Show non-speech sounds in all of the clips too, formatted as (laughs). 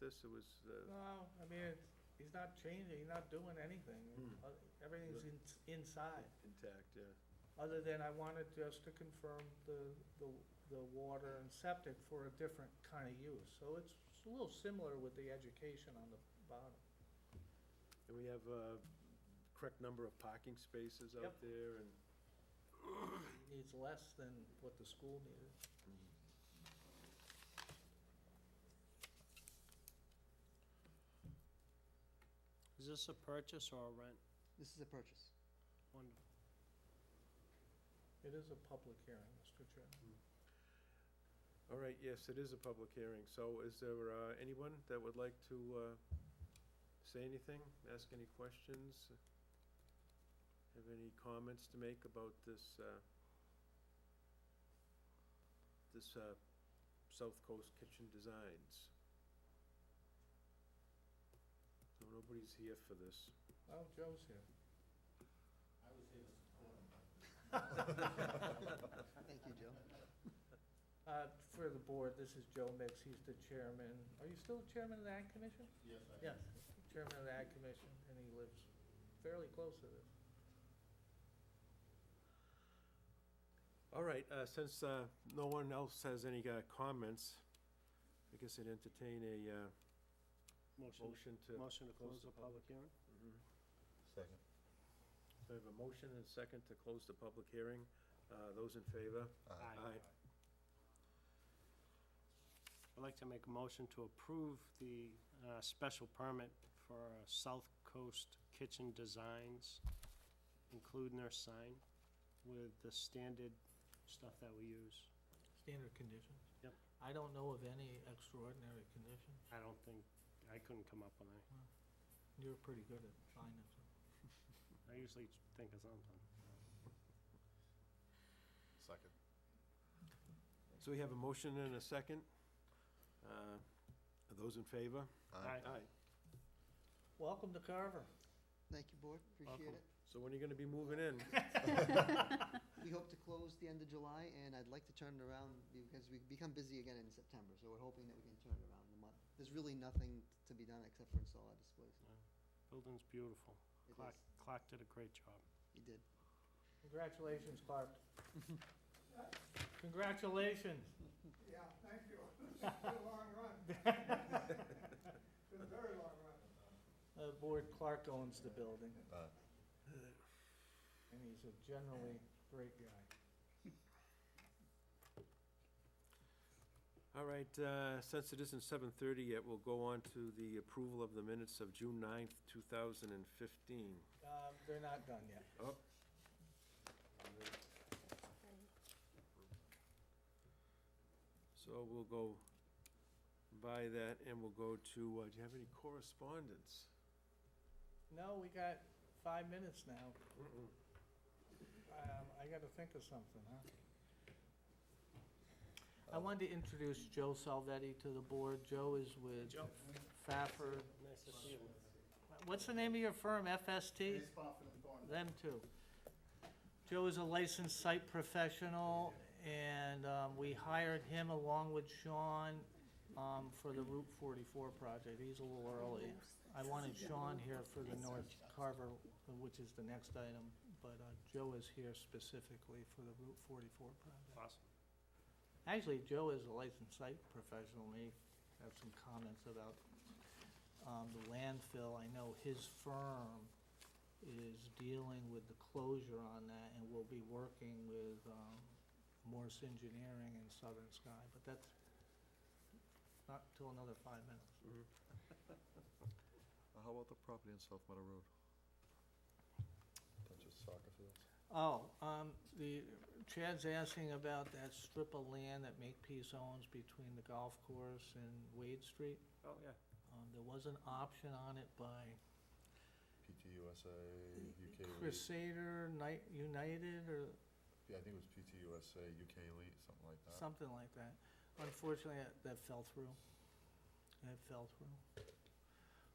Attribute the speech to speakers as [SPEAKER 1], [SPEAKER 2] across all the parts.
[SPEAKER 1] this? It was, uh,
[SPEAKER 2] No, I mean, it's, he's not changing, he's not doing anything.
[SPEAKER 1] Hmm.
[SPEAKER 2] Uh, Everything's in, inside,
[SPEAKER 1] intact, yeah.
[SPEAKER 2] other than I wanted just to confirm the, the, the water and septic for a different kind of use. So it's a little similar with the education on the bottom.
[SPEAKER 1] And we have uh correct number of parking spaces out
[SPEAKER 2] Yep.
[SPEAKER 1] there and,
[SPEAKER 2] It Needs less than what the school needed.
[SPEAKER 3] Is this a purchase or a rent?
[SPEAKER 4] This is a purchase.
[SPEAKER 3] Wonderful.
[SPEAKER 2] It is a public hearing, Mr. Chairman.
[SPEAKER 1] all right, yes, it is a public hearing. So is there uh, anyone that would like to uh, say anything, ask any questions? Have any comments to make about this, uh, this uh, South Coast Kitchen Designs? So nobody's here for this.
[SPEAKER 2] Oh, Joe's here.
[SPEAKER 5] I was here to support him.
[SPEAKER 4] Thank you, Joe.
[SPEAKER 2] Uh, for the board, this is Joe Mix, he's the chairman. Are you still chairman of the Ag Commission?
[SPEAKER 5] Yes, I.
[SPEAKER 2] Yes, chairman of the Ag Commission, and he lives fairly close to this.
[SPEAKER 1] All right, uh, since uh, no one else has any uh, comments, I guess I'd entertain a uh,
[SPEAKER 3] Motion,
[SPEAKER 1] motion to...
[SPEAKER 3] motion to close the public hearing?
[SPEAKER 1] Mhm.
[SPEAKER 6] Second.
[SPEAKER 1] So I have a motion and a second to close the public hearing. Uh, Those in favor? Aye.
[SPEAKER 3] I'd like to make a motion to approve the uh, special permit for uh, South Coast Kitchen Designs, including their sign with the standard stuff that we use.
[SPEAKER 2] Standard conditions?
[SPEAKER 3] Yep.
[SPEAKER 2] I don't know of any extraordinary conditions.
[SPEAKER 3] I don't think, I couldn't come up with any.
[SPEAKER 2] You're pretty good at finding them.
[SPEAKER 3] I usually think of something.
[SPEAKER 6] Second.
[SPEAKER 1] So we have a motion and a second. Uh, Are those in favor?
[SPEAKER 3] Aye.
[SPEAKER 2] Welcome to Carver.
[SPEAKER 4] Thank you, board. Appreciate
[SPEAKER 3] Welcome.
[SPEAKER 4] it.
[SPEAKER 1] So when are you going to be moving in?
[SPEAKER 4] We hope to close the end of July, and I'd like to turn it around because we become busy again in September, so we're hoping that we can turn it around in the month. There's really nothing to be done except for install our displays.
[SPEAKER 3] Building's beautiful.
[SPEAKER 4] It
[SPEAKER 3] Clark,
[SPEAKER 4] is.
[SPEAKER 3] Clark did a great job.
[SPEAKER 4] You did.
[SPEAKER 2] Congratulations, Clark. (laughs) Congratulations.
[SPEAKER 7] Yeah, thank you. (laughs) It's a long run. It's a very long run.
[SPEAKER 2] Uh, Board Clark owns the building,
[SPEAKER 6] Aye.
[SPEAKER 2] and he's a generally great guy.
[SPEAKER 1] All right, uh, since it isn't 7:30 yet, we'll go on to the approval of the minutes of June 9th, 2015.
[SPEAKER 2] Uh, They're not done yet.
[SPEAKER 1] Oh. So we'll go by that, and we'll go to, uh, do you have any correspondence?
[SPEAKER 2] No, we got five minutes now. Um, I gotta think of something, huh? I wanted to introduce Joe Salvetti to the board. Joe is with
[SPEAKER 3] Joe.
[SPEAKER 2] Fafford.
[SPEAKER 3] Nice to see you.
[SPEAKER 2] What's the name of your firm, FST?
[SPEAKER 5] He's confident going.
[SPEAKER 2] Them too. Joe is a licensed site professional, and um, we hired him along with Sean um, for the Route 44 project. He's a little early. I wanted Sean here for the North Carver, which is the next item, but uh, Joe is here specifically for the Route 44 project.
[SPEAKER 3] Awesome.
[SPEAKER 2] Actually, Joe is a licensed site professional, may have some comments about um, the landfill. I know his firm is dealing with the closure on that and will be working with um, Morse Engineering and Southern Sky, but that's not till another five minutes.
[SPEAKER 6] Uh, How about the property in South Meadow Road? Bunch of soccer fields.
[SPEAKER 2] Oh, um, the, Chad's asking about that strip of land that Makepeace owns between the golf course and Wade Street.
[SPEAKER 3] Oh, yeah.
[SPEAKER 2] Um, There was an option on it by
[SPEAKER 6] PTUSA, UK Elite.
[SPEAKER 2] Crusader Night United or
[SPEAKER 6] Yeah, I think it was PTUSA, UK Elite, something like that.
[SPEAKER 2] something like that. Unfortunately, that- that fell through. That fell through.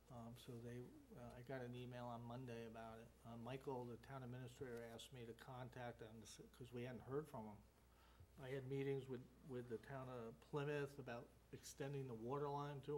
[SPEAKER 2] Um, so they, uh, I got an email on Monday about it. Uh, Michael, the town administrator, asked me to contact them because we hadn't heard from them. I had meetings with, with the town of Plymouth about extending the water line to